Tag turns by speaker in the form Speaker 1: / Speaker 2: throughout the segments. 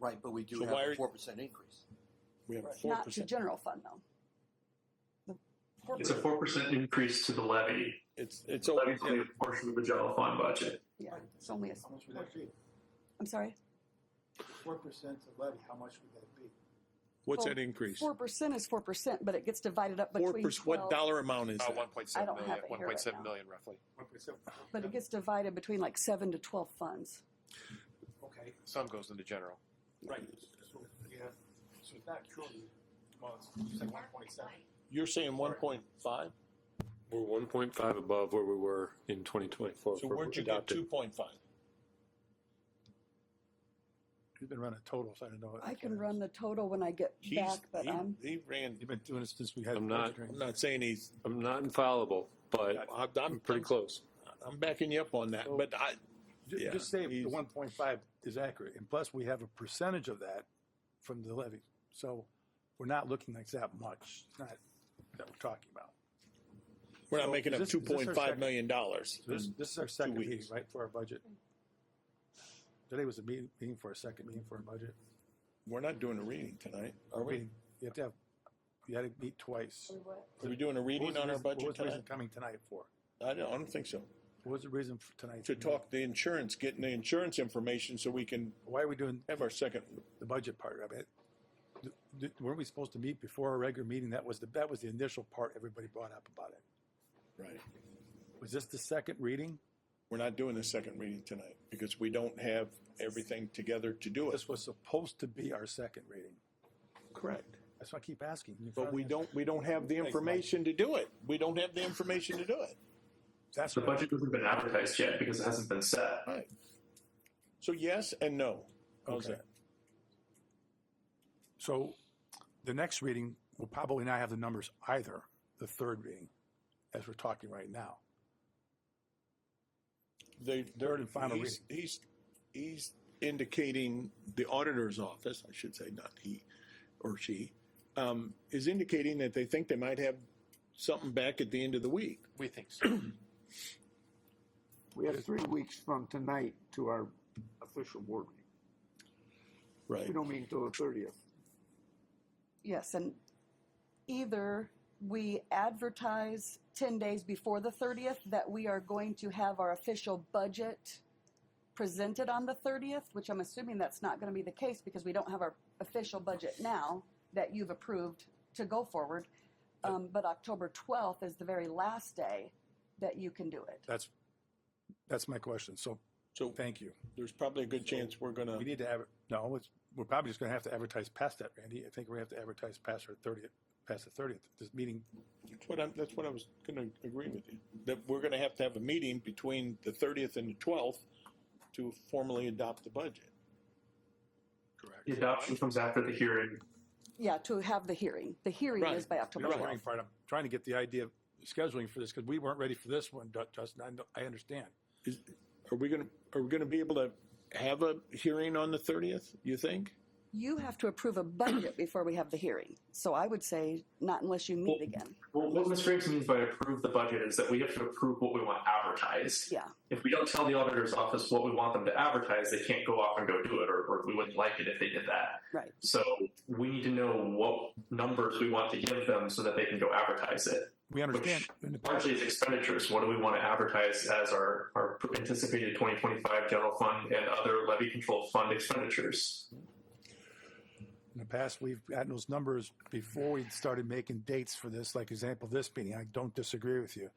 Speaker 1: Right, but we do
Speaker 2: So
Speaker 1: have
Speaker 2: why
Speaker 1: a
Speaker 2: are-
Speaker 1: four percent increase.
Speaker 2: We have a four
Speaker 3: Not to
Speaker 2: percent.
Speaker 3: general fund though.
Speaker 4: It's a four percent increase to the levy.
Speaker 2: It's, it's,
Speaker 4: The
Speaker 2: a-
Speaker 4: levy's only a portion of the general fund budget.
Speaker 3: Yeah, it's only a,
Speaker 5: How much would that be?
Speaker 3: I'm sorry.
Speaker 5: Four percent of levy, how much would that be?
Speaker 2: what's that increase?
Speaker 3: Oh, Four percent is four percent, but it gets divided up
Speaker 2: Four
Speaker 3: between
Speaker 2: percent, what
Speaker 3: twelve.
Speaker 2: dollar amount is
Speaker 6: Uh,
Speaker 2: that?
Speaker 6: one point seven
Speaker 3: don't have
Speaker 6: million,
Speaker 3: it
Speaker 6: one
Speaker 3: here
Speaker 6: point
Speaker 3: right
Speaker 6: seven
Speaker 3: now.
Speaker 6: million roughly.
Speaker 5: One percent?
Speaker 3: But it gets divided between like seven to twelve funds.
Speaker 5: Okay,
Speaker 6: Some goes into general.
Speaker 5: right, so you have, so it's not truly, well, it's, you said one point seven.
Speaker 2: You're saying one point five?
Speaker 7: We're one point five above where we were in twenty twenty-four.
Speaker 2: So where'd you get two point five?
Speaker 8: You've been running totals. I don't know.
Speaker 3: I can run the total when I get
Speaker 2: He's,
Speaker 3: back, but
Speaker 2: he-
Speaker 3: I'm,
Speaker 2: he ran,
Speaker 8: You've been doing it since we had.
Speaker 7: I'm not-
Speaker 8: the budget
Speaker 2: I'm
Speaker 8: hearing.
Speaker 2: not saying he's,
Speaker 7: I'm not infallible, but
Speaker 2: I- I'm
Speaker 7: I'm pretty close.
Speaker 2: I'm backing you up on that, but I,
Speaker 8: Ju-
Speaker 2: yeah,
Speaker 8: Just say
Speaker 2: he's-
Speaker 8: the one point five is accurate, and plus we have a percentage of that from the levy. So we're not looking like that much. It's not that we're talking about.
Speaker 2: we're not making
Speaker 8: is
Speaker 2: up
Speaker 8: this-
Speaker 2: two
Speaker 8: is this our
Speaker 2: point five
Speaker 8: second-
Speaker 2: million dollars. Hmm.
Speaker 8: So this, this is our second
Speaker 2: weeks.
Speaker 8: meeting, right, for our budget. Today was a meeting, meeting for our second meeting for our budget.
Speaker 2: We're not doing a reading tonight, are we?
Speaker 8: Meeting, you have to have, you had to meet twice.
Speaker 2: Are we doing a
Speaker 8: What was
Speaker 2: reading
Speaker 8: the
Speaker 2: on our
Speaker 8: reason- What
Speaker 2: budget
Speaker 8: was the reason
Speaker 2: tonight?
Speaker 8: coming tonight for?
Speaker 2: I don't, I don't think so.
Speaker 8: What was the reason for tonight?
Speaker 2: To talk the insurance, getting the insurance information so we can
Speaker 8: Why are we doing
Speaker 2: have our second,
Speaker 8: the budget part of it. Th- th- Weren't we supposed to meet before our regular meeting? That was the, that was the initial part everybody brought up about it.
Speaker 2: right.
Speaker 8: Was this the second reading?
Speaker 2: We're not doing the second reading tonight because we don't have everything together to do it.
Speaker 8: This was supposed to be our second reading.
Speaker 2: Correct.
Speaker 8: That's why I keep asking. You
Speaker 2: But we
Speaker 8: finally-
Speaker 2: don't, we don't have the information to do it. We don't have the information to do it.
Speaker 8: That's
Speaker 4: The
Speaker 8: what I-
Speaker 4: budget hasn't been advertised yet because it hasn't been set.
Speaker 2: Right. So yes and no. How's
Speaker 8: Okay.
Speaker 2: that?
Speaker 8: So the next reading will probably not have the numbers either, the third reading, as we're talking right now.
Speaker 2: They,
Speaker 8: Third and final
Speaker 2: he's, He's, he's indicating the auditor's office, I should say, not he or she, um, is indicating that they think they might have something back at the end of the week.
Speaker 6: We think so.
Speaker 9: We have three weeks from tonight to our official board meeting.
Speaker 2: Right.
Speaker 9: We don't meet until the thirtieth.
Speaker 3: yes, and either we advertise ten days before the thirtieth that we are going to have our official budget presented on the thirtieth, which I'm assuming that's not gonna be the case because we don't have our official budget now that you've approved to go forward. Um, but October twelfth is the very last day that you can do it.
Speaker 8: That's, that's my question. So
Speaker 2: So
Speaker 8: thank you.
Speaker 2: there's probably a good chance we're
Speaker 8: We
Speaker 2: gonna,
Speaker 8: need to have, no, it's, we're probably just gonna have to advertise past that, Randy. I think we have to advertise past our thirtieth, past the thirtieth. This meeting,
Speaker 2: that's what I'm, that's what I was gonna agree with you. That we're gonna have to have a meeting between the thirtieth and the twelfth to formally adopt the budget.
Speaker 4: The adoption comes after the hearing.
Speaker 3: Yeah, to have the hearing. The hearing
Speaker 2: Right.
Speaker 3: is by
Speaker 8: we
Speaker 3: October
Speaker 8: don't have any
Speaker 3: twelfth.
Speaker 8: part, I'm trying to get the idea of scheduling for this, because we weren't ready for this one, Ju- Justin. I, know- I understand.
Speaker 2: Is, are we gonna, are we gonna be able to have a hearing on the thirtieth, you think?
Speaker 3: You have to approve a budget before we have the hearing. So I would say not unless you meet
Speaker 4: Well-
Speaker 3: again.
Speaker 4: Well, what Ms. Graves means by approve the budget is that we have to approve what we want advertised.
Speaker 3: Yeah.
Speaker 4: If we don't tell the auditor's office what we want them to advertise, they can't go off and go do it, or, or we wouldn't like it if they did that.
Speaker 3: Right.
Speaker 4: So we need to know what numbers we want to give them so that they can go advertise it.
Speaker 8: We understand.
Speaker 4: Which largely is expenditures. What do we want to advertise as our, our anticipated 2025 general fund and other levy control fund expenditures?
Speaker 8: In the past, we've gotten those numbers before we started making dates for this, like example, this meeting. I don't disagree with you.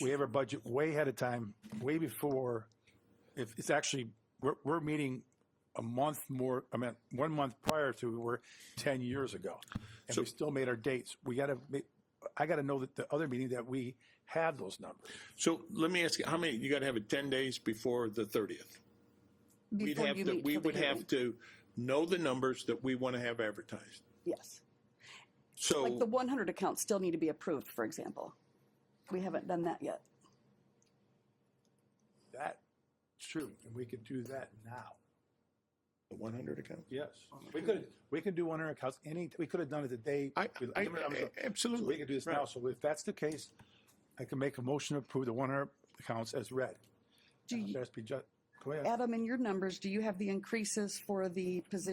Speaker 8: We have our budget way ahead of time, way before, if it's actually, we're, we're meeting a month more, I mean, one month prior to we were 10 years ago. And we still made our dates. We got to, I got to know that the other meeting that we have those numbers.
Speaker 2: So let me ask you, how many, you gotta have it ten days before the thirtieth? We'd
Speaker 3: Before
Speaker 2: have
Speaker 3: you
Speaker 2: to,
Speaker 3: meet
Speaker 2: we
Speaker 3: for the
Speaker 2: would have to
Speaker 3: hearing.
Speaker 2: know the numbers that we wanna have advertised.
Speaker 3: Yes. Like the
Speaker 2: So,
Speaker 3: one hundred accounts still need to be approved, for example. We haven't done that yet.
Speaker 8: That's true. And we could do that now.
Speaker 2: the one hundred account?
Speaker 8: Yes. We could, we could do one in our house, any, we could have done it the day.
Speaker 2: I,
Speaker 8: we-
Speaker 2: I,
Speaker 8: I'm sorry.
Speaker 2: absolutely.
Speaker 8: So we can do this now.
Speaker 2: Right.
Speaker 8: So if that's the case, I can make a motion to approve the one hour accounts as read.
Speaker 3: Do you,
Speaker 8: Just be ju- go ahead.
Speaker 3: Adam, in your numbers, do you have the increases for the position?